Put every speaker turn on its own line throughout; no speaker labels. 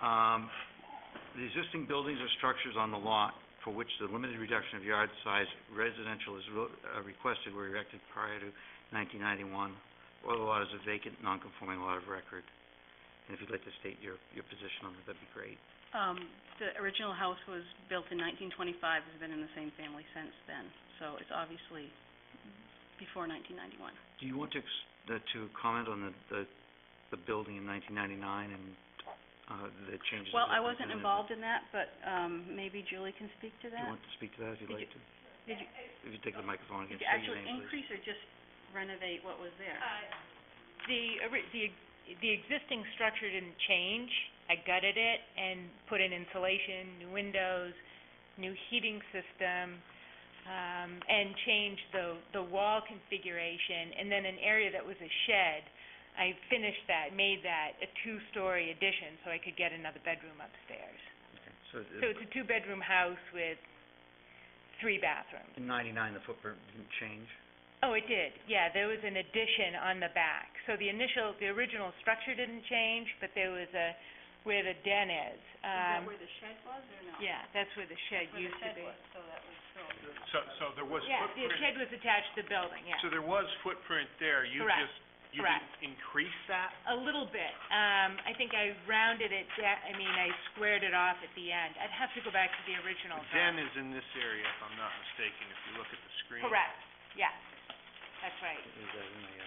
Um, The existing buildings or structures on the lot for which the limited reduction of yard size residential is re- uh, requested were erected prior to 1991, or the lot is a vacant, non-conforming lot of record. And if you'd like to state your, your position on that, that'd be great.
Um, the original house was built in nineteen twenty-five, it's been in the same family since then, so it's obviously before nineteen ninety-one.
Do you want to, ex- the- to comment on the, the, the building in 1999 and uh, the changes?
Well,
that
I
have
wasn't
been-
involved in that, but, um, maybe Julie can speak to
Do you
that.
want to speak to that, if you'd
Did
like
you-
to?
Did you,
If you take the microphone again,
did you
state your
actually
name, please.
increase or just renovate what was there?
The, ori- the, the existing structure didn't change. I gutted it and put in insulation, new windows, new heating system, um, and changed the, the wall configuration. And then an area that was a shed, I finished that, made that a two-story addition so I could get another bedroom upstairs.
Okay, So it-
So it's a two-bedroom house with three bathrooms.
in 99, the footprint didn't change?
Oh, it did, yeah, there was an addition on the back. So the initial, the original structure didn't change, but there was a, where the den is, um...
the shed was, or no?
Yeah, that's where the shed used to be.
so that was
So, so there was
Yeah, the
footprint,
shed was attached to the building, yeah.
so there was footprint there, you
Correct.
just, you
Correct.
just increased that?
A little bit, um, I think I rounded it da- I mean, I squared it off at the end. I'd have to go back to the original
The
drawing.
den is in this area, if I'm not mistaken, if you look at the screen.
Correct, yes, that's right.
Is that in the, uh,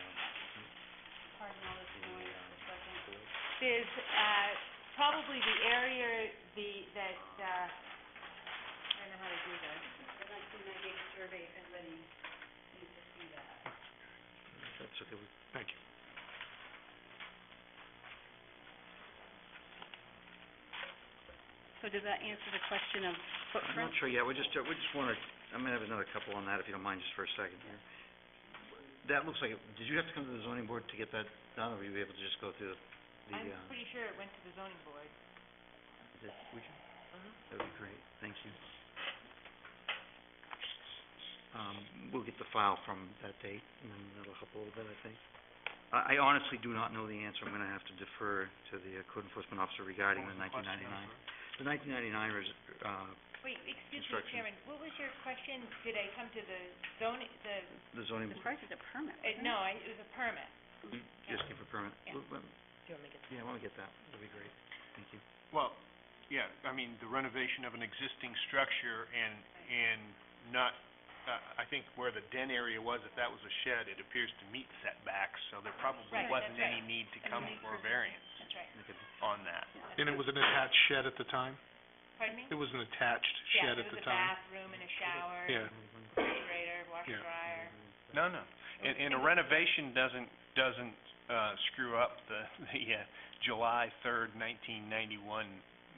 Pardon all this noise for a second.
There's, uh, probably the area, the, that, uh, I don't know how to do this.
The nineteen ninety-eight survey, if anybody needs to see that.
that's okay, we-
Thank you.
So does that answer the question of
I'm
footprint?
not sure, yeah, we just, we just wanna, I'm gonna have another couple on that, if you don't mind, just for a second here. That looks like, it- did you have to come to the zoning board to get that done, or were you able to just go through the,
I'm
the, uh,
pretty sure it went to the zoning board.
the, would you?
Uh-huh.
That'd be great, thank you. Um, we'll get the file from that date, and then that'll help a little bit, I think. I, I honestly do not know the answer, I'm gonna have to defer to the uh, code enforcement officer regarding the nineteen ninety-nine. The nineteen ninety-nine res, uh,
Wait, excuse me,
Construction.
Chairman, what was your question? Did I come to the zoning, the,
the zoning,
As far as the permit,
uh, no, I, it was a permit.
you just came for permit.
Yeah.
Well, well,
Do you want me to get?
Yeah, I want to get that. That'd be great. Thank you.
Well, yeah, I mean, the renovation of an existing structure and, and not, uh, I think where the den area was, if that was a shed, it appears to meet setbacks, so there probably
Right, that's
wasn't
right.
any need to come for a variance
That's right.
Make it-
on that.
And it was an attached shed at the time?
Pardon me?
It was an attached shed at the time?
Yeah, there was a bathroom and a shower,
Yeah.
refrigerator, washer,
Yeah.
dryer.
No, no. And, and a renovation doesn't, doesn't, uh, screw up the, the, uh, July third, nineteen ninety-one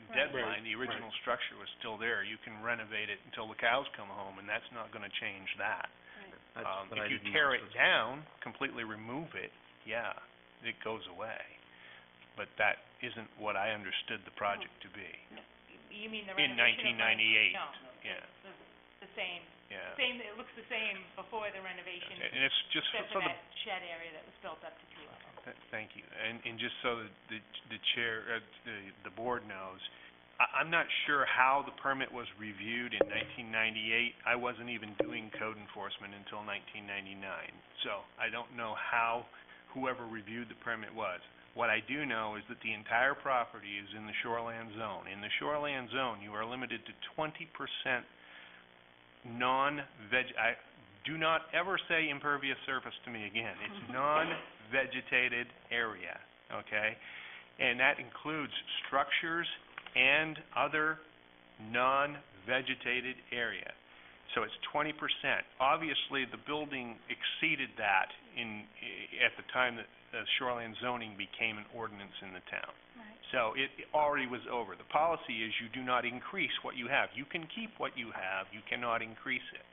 Right.
deadline. The
Right,
original structure was still there. You can renovate it until the cows come home, and that's not gonna change that.
That's
Um,
what I
if you
didn't know,
tear
so
it
it's-
down, completely remove it, yeah, it goes away. But that isn't what I understood the project to be.
You mean the
In
renovation of my-
1998,
No.
yeah.
it's the- The same,
Yeah.
same, it looks the same before the renovation,
And it's just
except for
for the
that shed area that was built up to two levels.
Th- Thank you. And, and just so that the, the chair, uh, the, the board knows, I, I'm not sure how the permit was reviewed in nineteen ninety-eight. I wasn't even doing code enforcement until nineteen ninety-nine. So I don't know how whoever reviewed the permit was. What I do know is that the entire property is in the shoreland zone. In the shoreland zone, you are limited to twenty percent non-veg, I, do not ever say impervious surface to me again. It's non-vegetated area, okay? And that includes structures and other non-vegetated area. So it's twenty percent. Obviously, the building exceeded that in, i- at the time that uh, shoreline zoning became an ordinance in the town.
Right.
So it it already was over. The policy is you do not increase what you have. You can keep what you have, you cannot increase it.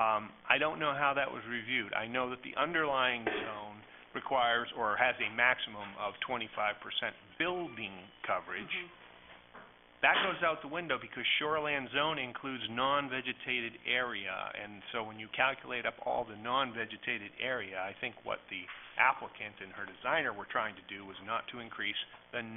Um, I don't know how that was reviewed. I know that the underlying zone requires or has a maximum of twenty-five percent building coverage.
Mm-hmm.
That goes out the window because shoreland zone includes non-vegetated area, and so when you calculate up all the non-vegetated area, I think what the applicant and her designer were trying to do was not to increase the